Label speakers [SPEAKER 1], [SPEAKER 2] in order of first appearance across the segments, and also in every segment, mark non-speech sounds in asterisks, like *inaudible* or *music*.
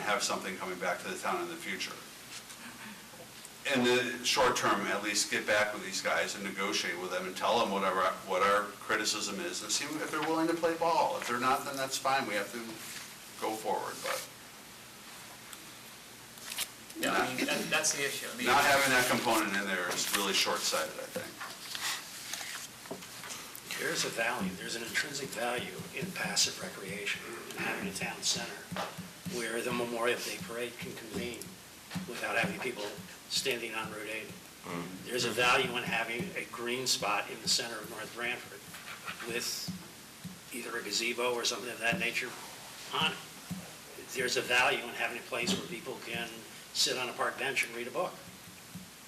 [SPEAKER 1] have something coming back to the town in the future. In the short term, at least get back with these guys and negotiate with them and tell them what our, what our criticism is and see if they're willing to play ball. If they're not, then that's fine, we have to go forward, but
[SPEAKER 2] No, I mean, that- that's the issue. I mean,
[SPEAKER 1] not having that component in there is really short-sighted, I think.
[SPEAKER 3] There's a value, there's an intrinsic value in passive recreation, and having a town center where the Memorial Day Parade can convene without having people standing on Route 80.
[SPEAKER 1] Mm-hmm.
[SPEAKER 3] There's a value in having a green spot in the center of North Branford with either a gazebo or something of that nature on it. There's a value in having a place where people can sit on a park bench and read a book.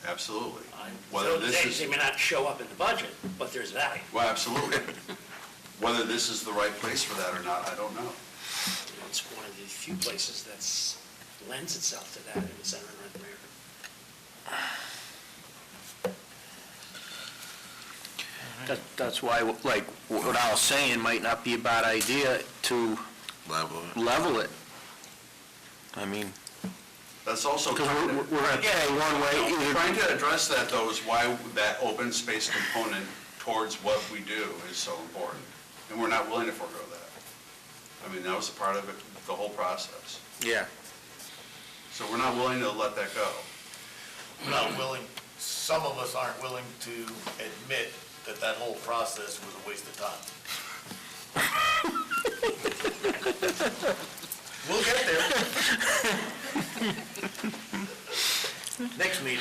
[SPEAKER 1] Absolutely.
[SPEAKER 3] I-
[SPEAKER 1] Whether
[SPEAKER 3] so
[SPEAKER 1] this
[SPEAKER 3] they-
[SPEAKER 1] is.
[SPEAKER 3] They may not show up in the budget, but there's value.
[SPEAKER 1] Well, absolutely. Whether this is the right place for that or not, I don't know.
[SPEAKER 3] You know, It's one of the few places that's lends itself to that in the center of North America.
[SPEAKER 4] That, that's why, like, what I was saying might not be a bad idea to
[SPEAKER 5] level.
[SPEAKER 4] level it. I mean,
[SPEAKER 1] That's also.
[SPEAKER 4] because we're, we're gonna pay one way, either,
[SPEAKER 1] Trying to address that, though, is why that open space component towards what we do is so important. And we're not willing to forego that. I mean, that was a part of it, the whole process.
[SPEAKER 4] yeah.
[SPEAKER 1] So we're not willing to let that go.
[SPEAKER 6] We're not willing, some of us aren't willing to admit that that whole process was a waste of time. We'll get there.
[SPEAKER 3] Next meeting.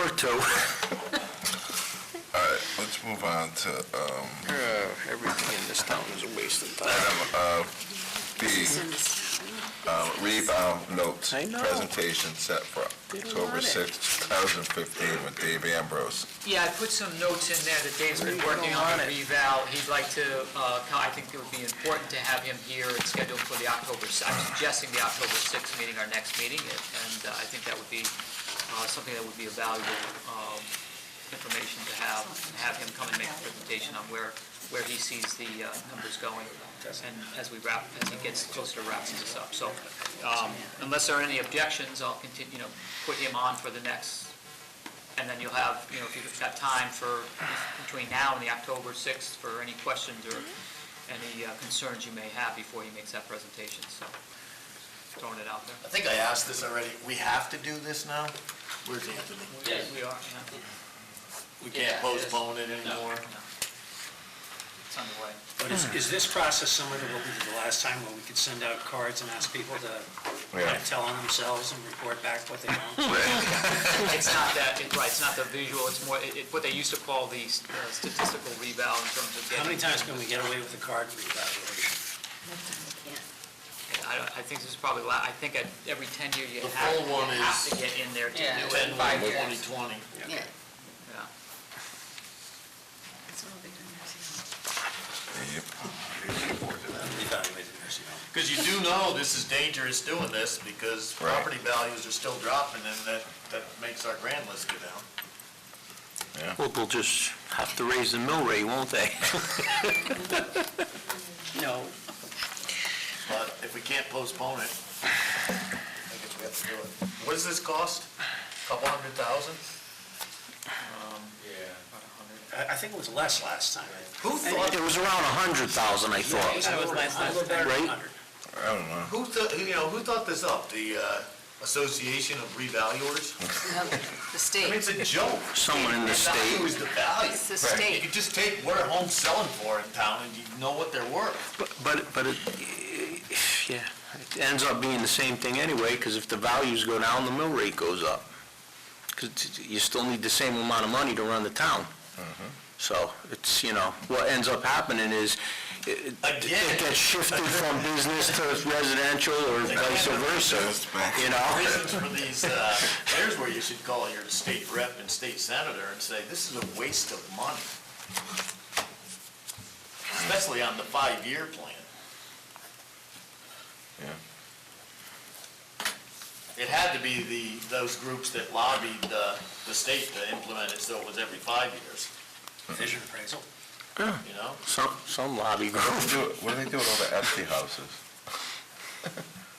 [SPEAKER 4] Or two.
[SPEAKER 5] All right, let's move on to um,
[SPEAKER 4] Uh, Everything in this town is a waste of time.
[SPEAKER 5] item uh, B, um, rebound notes
[SPEAKER 4] I know.
[SPEAKER 5] presentation set for
[SPEAKER 4] They don't
[SPEAKER 5] October
[SPEAKER 4] want it.
[SPEAKER 5] 6, 2015 with Dave Ambrose.
[SPEAKER 2] yeah, I put some notes in there that Dave's been working on the reval. He'd like to, uh, co- I think it would be important to have him here and scheduled for the October, si- I'm suggesting the October 6th meeting, our next meeting, and and, uh, I think that would be uh, something that would be a valuable um, information to have, and have him come and make a presentation on where, where he sees the uh, numbers going, and as we wrap, as he gets closer to wrapping this up. So um, unless there are any objections, I'll continue, you know, put him on for the next and then you'll have, you know, if you've got time for, between now and the October 6th, for any questions or any uh, concerns you may have before he makes that presentation, so throwing it out there.
[SPEAKER 6] I think I asked this already. We have to do this now? Where's Anthony?
[SPEAKER 2] We are, yeah.
[SPEAKER 6] We
[SPEAKER 2] Yeah, it is.
[SPEAKER 6] can't postpone it anymore.
[SPEAKER 2] No. It's underway.
[SPEAKER 3] But is, is this process similar to what we did the last time, where we could send out cards and ask people to kind
[SPEAKER 5] Yeah.
[SPEAKER 3] of tell on themselves and report back what they know?
[SPEAKER 2] It's not that, it- right, it's not the visual, it's more, it- it- what they used to call the s- uh, statistical rebound in terms of
[SPEAKER 3] How many
[SPEAKER 2] getting,
[SPEAKER 3] times can we get away with a card reevaluation?
[SPEAKER 2] I don't- I think this is probably, la- I think at every 10-year you
[SPEAKER 6] The
[SPEAKER 2] have,
[SPEAKER 6] full one
[SPEAKER 2] you have
[SPEAKER 6] is
[SPEAKER 2] to get in there to do
[SPEAKER 7] Yeah.
[SPEAKER 2] it.
[SPEAKER 6] Ten
[SPEAKER 2] Five
[SPEAKER 6] one,
[SPEAKER 2] years.
[SPEAKER 6] twenty twenty.
[SPEAKER 7] Yeah.
[SPEAKER 2] Yeah.
[SPEAKER 5] Yep.
[SPEAKER 3] Reevaluated nursing home.
[SPEAKER 6] Because you do know this is dangerous doing this because
[SPEAKER 5] Right.
[SPEAKER 6] property values are still dropping and that, that makes our grand list go down.
[SPEAKER 4] *laughs* Well, they'll just have to raise the mill rate, won't they?
[SPEAKER 3] No,
[SPEAKER 6] But if we can't postpone it, I guess we have to do it. What does this cost? Couple hundred thousand?
[SPEAKER 3] I, I think it was less last time.
[SPEAKER 6] Who thought,
[SPEAKER 4] It was around a hundred thousand, I thought.
[SPEAKER 3] I was last time. A little better than
[SPEAKER 4] Right?
[SPEAKER 3] 100.
[SPEAKER 5] I don't know.
[SPEAKER 6] who thought, you know, who thought this up? The uh, Association of Revaluers?
[SPEAKER 7] The
[SPEAKER 6] I mean,
[SPEAKER 7] state,
[SPEAKER 6] it's a joke.
[SPEAKER 4] Someone in the state.
[SPEAKER 6] Who's the value?
[SPEAKER 7] It's the
[SPEAKER 6] Right.
[SPEAKER 7] state.
[SPEAKER 6] You could just take what are homes selling for in town and you know what they're worth.
[SPEAKER 4] But- But, but it, yeah, it ends up being the same thing anyway, because if the values go down, the mill rate goes up. Because you still need the same amount of money to run the town. So it's, you know, what ends up happening is it it-
[SPEAKER 6] Again.
[SPEAKER 4] it gets shifted from business to residential or vice versa, you know?
[SPEAKER 6] Reasons for these, uh, there's where you should call your state rep and state senator and say, this is a waste of money. Especially on the five-year plan.
[SPEAKER 5] Yeah.
[SPEAKER 6] It had to be the, those groups that lobbied the, the state to implement it, so it was every five years,
[SPEAKER 3] Vision appraisal.
[SPEAKER 6] you know?
[SPEAKER 4] Some, some lobby
[SPEAKER 5] What
[SPEAKER 4] group.
[SPEAKER 5] do they do with all the empty houses?